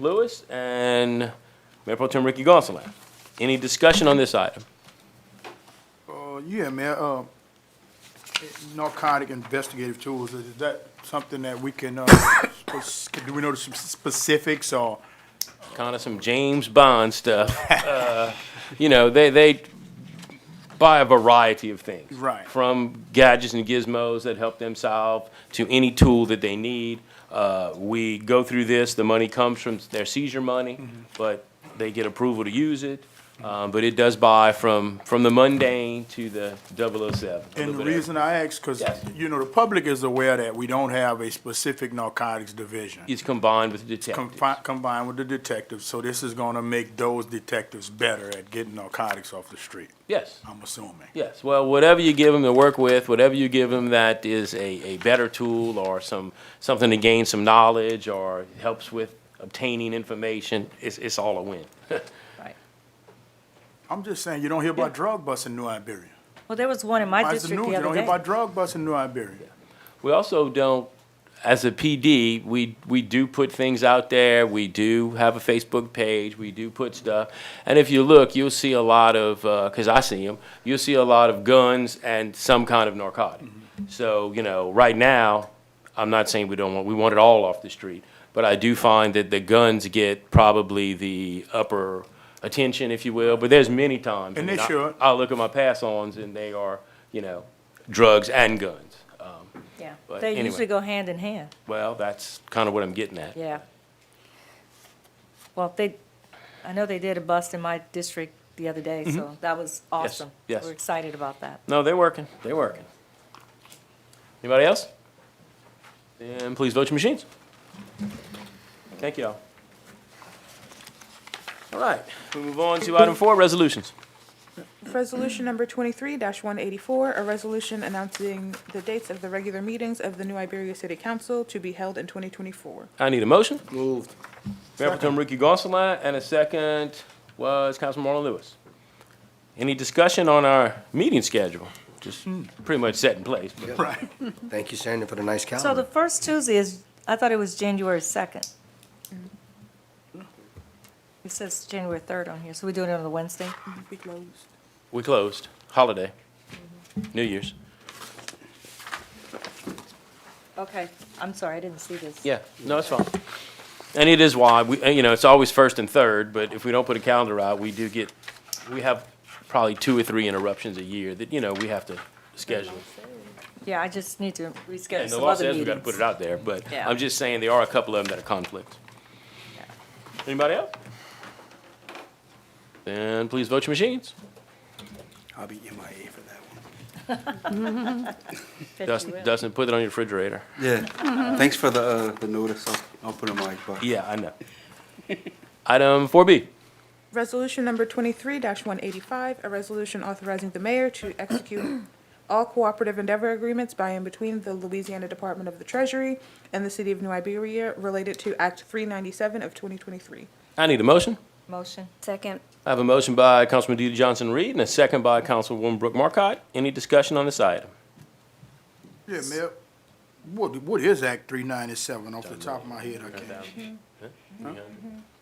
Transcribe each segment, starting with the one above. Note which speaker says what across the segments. Speaker 1: Lewis and Mayor Pro Tem Ricky Gonsalas. Any discussion on this item?
Speaker 2: Uh, yeah, man, uh, narcotic investigative tools, is that something that we can, uh, sp- do we know the s- specifics or?
Speaker 1: kind of some James Bond stuff. Uh, you know, they they buy a variety of things,
Speaker 2: Right.
Speaker 1: From gadgets and gizmos that help them solve to any tool that they need. Uh, we go through this. The money comes from their seizure money,
Speaker 2: Mm-hmm.
Speaker 1: but they get approval to use it. Um, but it does buy from from the mundane to the 007. a
Speaker 2: And
Speaker 1: little
Speaker 2: the
Speaker 1: bit of-
Speaker 2: reason I ask, because,
Speaker 1: Yes.
Speaker 2: you know, the public is aware that we don't have a specific narcotics division.
Speaker 1: it's combined with detectives.
Speaker 2: Confi- Combined with the detectives, so this is gonna make those detectives better at getting narcotics off the street,
Speaker 1: yes.
Speaker 2: I'm assuming.
Speaker 1: Yes, well, whatever you give them to work with, whatever you give them that is a, a better tool or some, something to gain some knowledge or helps with obtaining information, it's, it's all a win.
Speaker 3: Right.
Speaker 2: I'm just saying, you don't hear about drug busts in New Iberia.
Speaker 3: Well, there was one in my
Speaker 2: Why is the
Speaker 3: district
Speaker 2: news,
Speaker 3: the
Speaker 2: you don't
Speaker 3: other
Speaker 2: hear
Speaker 3: day.
Speaker 2: about drug busts in New Iberia.
Speaker 1: We also don't, as a PD, we, we do put things out there, we do have a Facebook page, we do put stuff. And if you look, you'll see a lot of, because I see them, you'll see a lot of guns and some kind of narcotic.
Speaker 2: Mm-hmm.
Speaker 1: So, you know, right now, I'm not saying we don't want, we want it all off the street, but I do find that the guns get probably the upper attention, if you will, but there's many times.
Speaker 2: And they
Speaker 1: I mean, I-
Speaker 2: should.
Speaker 1: I look at my pass-ons and they are, you know, drugs and guns. Um,
Speaker 3: Yeah,
Speaker 1: But
Speaker 3: they
Speaker 1: anyway.
Speaker 3: usually go hand in hand,
Speaker 1: well, that's kind of what I'm getting at.
Speaker 3: yeah. Well, they, I know they did a bust in my district the other day, so that was awesome.
Speaker 1: Mm-hmm. yes.
Speaker 3: We're excited about that.
Speaker 1: No, they're working, they're working. Anybody else? Then please vote your machines. Thank you all. All right, we move on to item four, resolutions.
Speaker 4: Resolution number twenty-three one eighty-four, a resolution announcing the dates of the regular meetings of the New Iberia City Council to be held in twenty twenty-four.
Speaker 1: I need a motion. Moved. Mayor Pro Tem Ricky Gonsalas, and a second was Councilman Marlon Lewis. Any discussion on our meeting schedule? Just pretty much set in place, but
Speaker 2: Right.
Speaker 5: Thank you, Sandra, for the nice
Speaker 3: So the
Speaker 5: calendar.
Speaker 3: first Tuesday is, I thought it was January second. Mm-hmm. It says January third on here, so we doing it on the Wednesday?
Speaker 4: Be closed.
Speaker 1: we closed, holiday, New Year's.
Speaker 3: Okay, I'm sorry, I didn't see this.
Speaker 1: Yeah, no, it's fine. And it is why, we, you know, it's always first and third, but if we don't put a calendar out, we do get, we have probably two or three interruptions a year that, you know, we have to schedule.
Speaker 3: Yeah, I just need to reschedule
Speaker 1: And the
Speaker 3: some
Speaker 1: law
Speaker 3: other
Speaker 1: says we
Speaker 3: meetings.
Speaker 1: gotta put it out there, but
Speaker 3: Yeah.
Speaker 1: I'm just saying there are a couple of them that are conflicts. Anybody else? Then please vote your machines.
Speaker 5: I'll be MIA for that one.
Speaker 3: Bet you
Speaker 1: Dustin,
Speaker 3: will.
Speaker 1: Dustin, put it on your refrigerator.
Speaker 5: Yeah, thanks for the, uh, the notice. I'll, I'll put it in my box.
Speaker 1: Yeah, I know. Item four B.
Speaker 4: Resolution number twenty-three one eighty-five, a resolution authorizing the mayor to execute all cooperative endeavor agreements by and between the Louisiana Department of the Treasury and the City of New Iberia related to Act three ninety-seven of twenty twenty-three.
Speaker 1: I need a motion.
Speaker 3: Motion.
Speaker 6: Second.
Speaker 1: I have a motion by Councilman DeeDee Johnson-Reed and a second by Councilwoman Brooke Markcott. Any discussion on this item?
Speaker 2: Yeah, Mayor, what, what is Act three ninety-seven off the top of my head, I can't.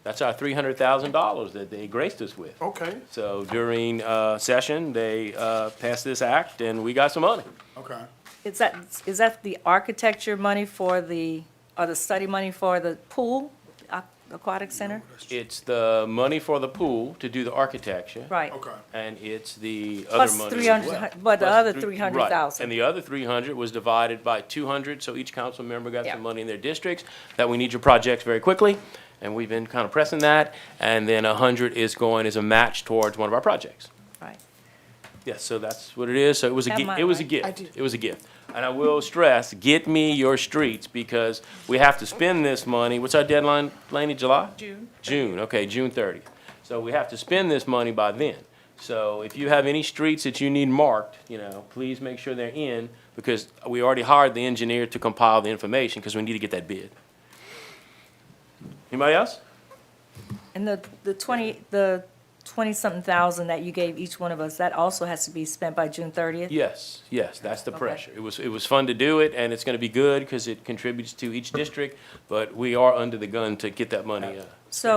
Speaker 1: That's our three hundred thousand dollars that they graced us with.
Speaker 2: Okay,
Speaker 1: So during, uh, session, they, uh, passed this act and we got some money.
Speaker 2: okay.
Speaker 3: Is that, is that the architecture money for the, or the study money for the pool, aqu- aquatic center?
Speaker 1: It's the money for the pool to do the architecture.
Speaker 3: Right.
Speaker 2: Okay.
Speaker 1: And it's the other
Speaker 3: Plus
Speaker 1: money
Speaker 3: three
Speaker 1: as
Speaker 3: hundred,
Speaker 1: well.
Speaker 3: but the
Speaker 1: Plus
Speaker 3: other
Speaker 1: three-
Speaker 3: three
Speaker 1: right.
Speaker 3: hundred
Speaker 1: And
Speaker 3: thousand.
Speaker 1: the other three hundred was divided by two hundred, so each council member got
Speaker 3: Yeah.
Speaker 1: some money in their districts, that we need your projects very quickly, and we've been kind of pressing that. And then a hundred is going as a match towards one of our projects.
Speaker 3: Right.
Speaker 1: Yes, so that's what it is. So it was a,
Speaker 3: That
Speaker 1: gi-
Speaker 3: might
Speaker 1: it was a
Speaker 3: work.
Speaker 4: I
Speaker 1: gift.
Speaker 4: do.
Speaker 1: It was a gift. And I will stress, get me your streets because we have to spend this money. What's our deadline, Laney, July?
Speaker 4: June.
Speaker 1: June, okay, June thirtieth. So we have to spend this money by then. So if you have any streets that you need marked, you know, please make sure they're in because we already hired the engineer to compile the information because we need to get that bid. Anybody else?
Speaker 3: And the, the twenty, the tw- twenty-something thousand that you gave each one of us, that also has to be spent by June thirtieth?
Speaker 1: Yes, yes, that's the
Speaker 3: Okay.
Speaker 1: pressure. It was, it was fun to do it, and it's gonna be good, because it contributes to each district, but we are under the gun to get that money, uh,
Speaker 3: So